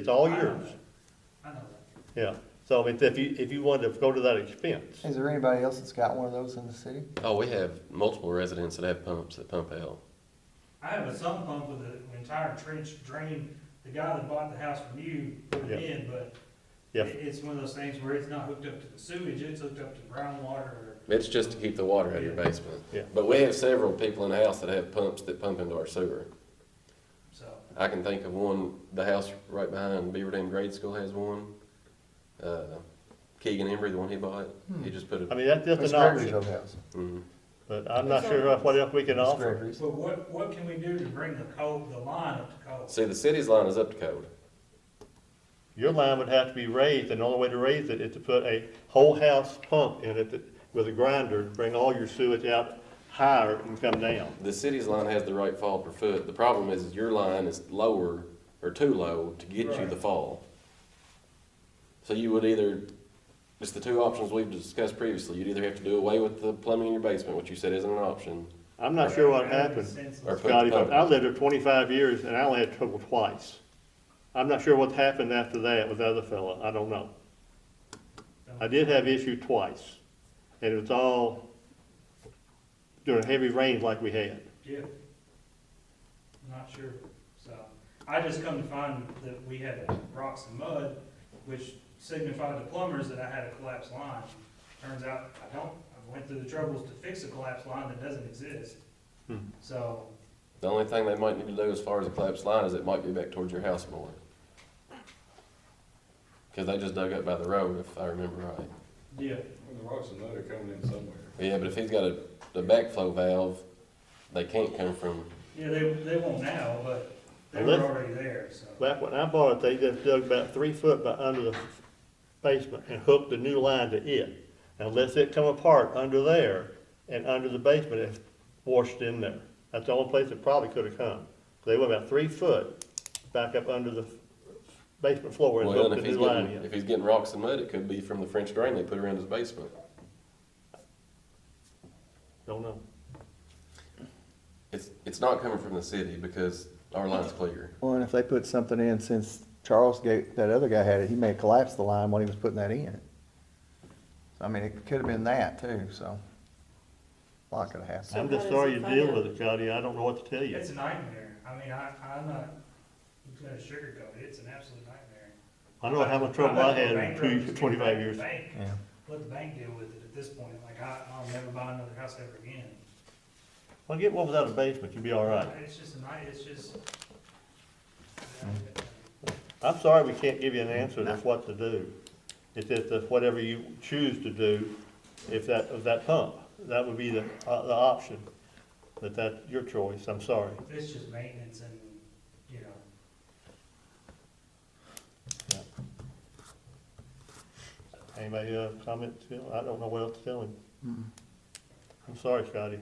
It's all I know yours. that. I know that. Yeah, so it's if you, if you wanted to go to that expense, Is there anybody else that's got one of those in the city? Oh, we have multiple residents that have pumps that pump out. I have a sump pump with an entire trench drain. The guy that bought the house from you put it in, but Yeah. it- it's one of those things where it's not hooked up to the sewage, it's hooked up to groundwater or It's just to keep the water out of your basement. Yeah. But we have several people in the house that have pumps that pump into our sewer. so. I can think of one, the house right behind Beaver Dam Grade School has one. Uh, Keegan Embry, the one he bought, he just put Hmm. I a, mean, that's just It's an option, Gregory's old house. Mhm. but I'm not sure what else we can It's offer. Gregory's. But what, what can we do to bring the code, the line up to code? See, the city's line is up to code. Your line would have to be raised, and the only way to raise it is to put a whole house pump in it that- with a grinder, bring all your sewage out higher and come down. The city's line has the right fall per foot. The problem is your line is lower or too low to get you the Right. fall. So you would either, it's the two options we've discussed previously. You'd either have to do away with the plumbing in your basement, which you said isn't an option. I'm not sure what That makes happened, sense. Or- Scotty, but I lived there twenty-five years and I only had trouble twice. I'm not sure what happened after that with the other fella, I don't know. I did have issue twice, and it was all during heavy rains like we had. Yeah. I'm Not sure, so, I just come to find that we had rocks and mud, which signified to plumbers that I had a collapsed line. Turns out, I don't, I went through the troubles to fix a collapsed line that doesn't exist. Hmm. So, The only thing they might need to do as far as a collapsed line is it might be back towards your house more. Cause they just dug up by the road, if I remember right. yeah, Well, the rocks and mud are coming in somewhere. Yeah, but if he's got a, the backflow valve, they can't come from, yeah, they, they won't now, but they were Unless- already there, so. Back when I bought it, they just dug about three foot by under the basement and hooked the new line to it. And lets it come apart under there and under the basement, it washed in there. That's the only place it probably could have come. They went about three foot back up under the basement floor and well, hooked and the if he's new line getting, in. if he's getting rocks and mud, it could be from the French drain they put around his basement. Don't know. It's, it's not coming from the city because our line's clear. Well, and if they put something in, since Charles gave, that other guy had it, he may have collapsed the line when he was putting that in. I mean, it could have been that too, so. a Lot could have happened. I'm just sorry you deal with it, Cody. I don't know what to tell you. It's a nightmare. I mean, I, I'm not gonna sugarcoat it. It's an absolute nightmare. I know how much trouble I had in two, twenty-five years. Bank, Yeah. Let the bank deal with it at this point. Like, I, I'll never buy another house ever again. Well, get one without a basement, you'll be all right. It's just a night, it's just. I'm sorry we can't give you an answer to what to do. It's just that whatever you choose to do, if that, of that pump, that would be the, uh, the option. But that's your choice, I'm sorry. It's just maintenance and, you know, Anybody, uh, comment, Phil? I don't know what else to tell him. Mm. I'm sorry, Scotty.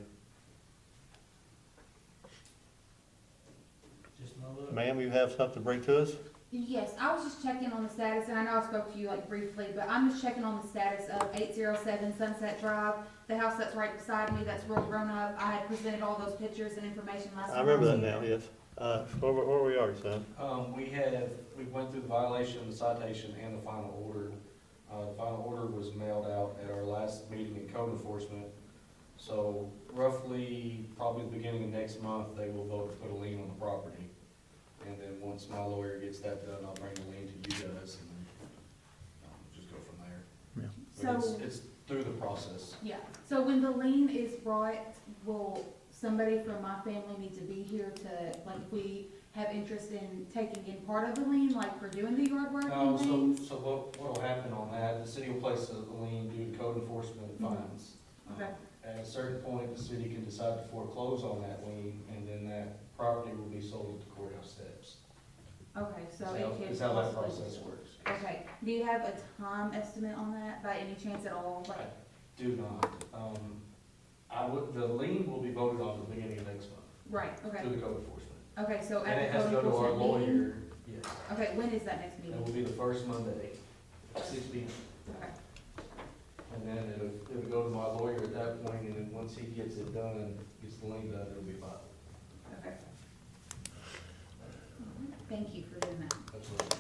just no look. Ma'am, you have something to bring to us? Yes, I was just checking on the status, and I know I spoke to you like briefly, but I'm just checking on the status of eight zero seven Sunset Drive, the house that's right beside me, that's real grown up. I had presented all those pictures and information last time. I remember was that here. now, yes. Uh, where, were- where we are, son? Um, we have, we went through the violation, the citation, and the final order. Uh, the final order was mailed out at our last meeting in code enforcement. So roughly, probably the beginning of next month, they will vote to put a lien on the property. And then once my lawyer gets that done, I'll bring the lien to you guys and then, um, just go from there. But So, it's, it's through the process. yeah, so when the lien is brought, will somebody from my family need to be here to, like, if we have interest in taking in part of the lien, like for doing the yard work No, and Um, so, things? so what, what'll happen on that, the city will place a lien due to code enforcement Mhm. fines. Um, Okay, At a certain point, the city can decide to foreclose on that lien, and then that property will be sold at the courthouse steps. okay, so Is how- it could. Is how that possibly- process works. Okay, do you have a time estimate on that by any chance at all? Like, Do not, um, I would, the lien will be voted on at the beginning of next month, right, okay, through the code enforcement. okay, so And it at the has to code go to our enforcement meeting? lawyer, yes, Okay, when is that next that meeting? will be the first Monday, six P M. Okay, And then it'll, it'll go to my lawyer at that point, and then once he gets it done, gets the lien done, it'll be filed. okay. Thank you for doing that. That's what.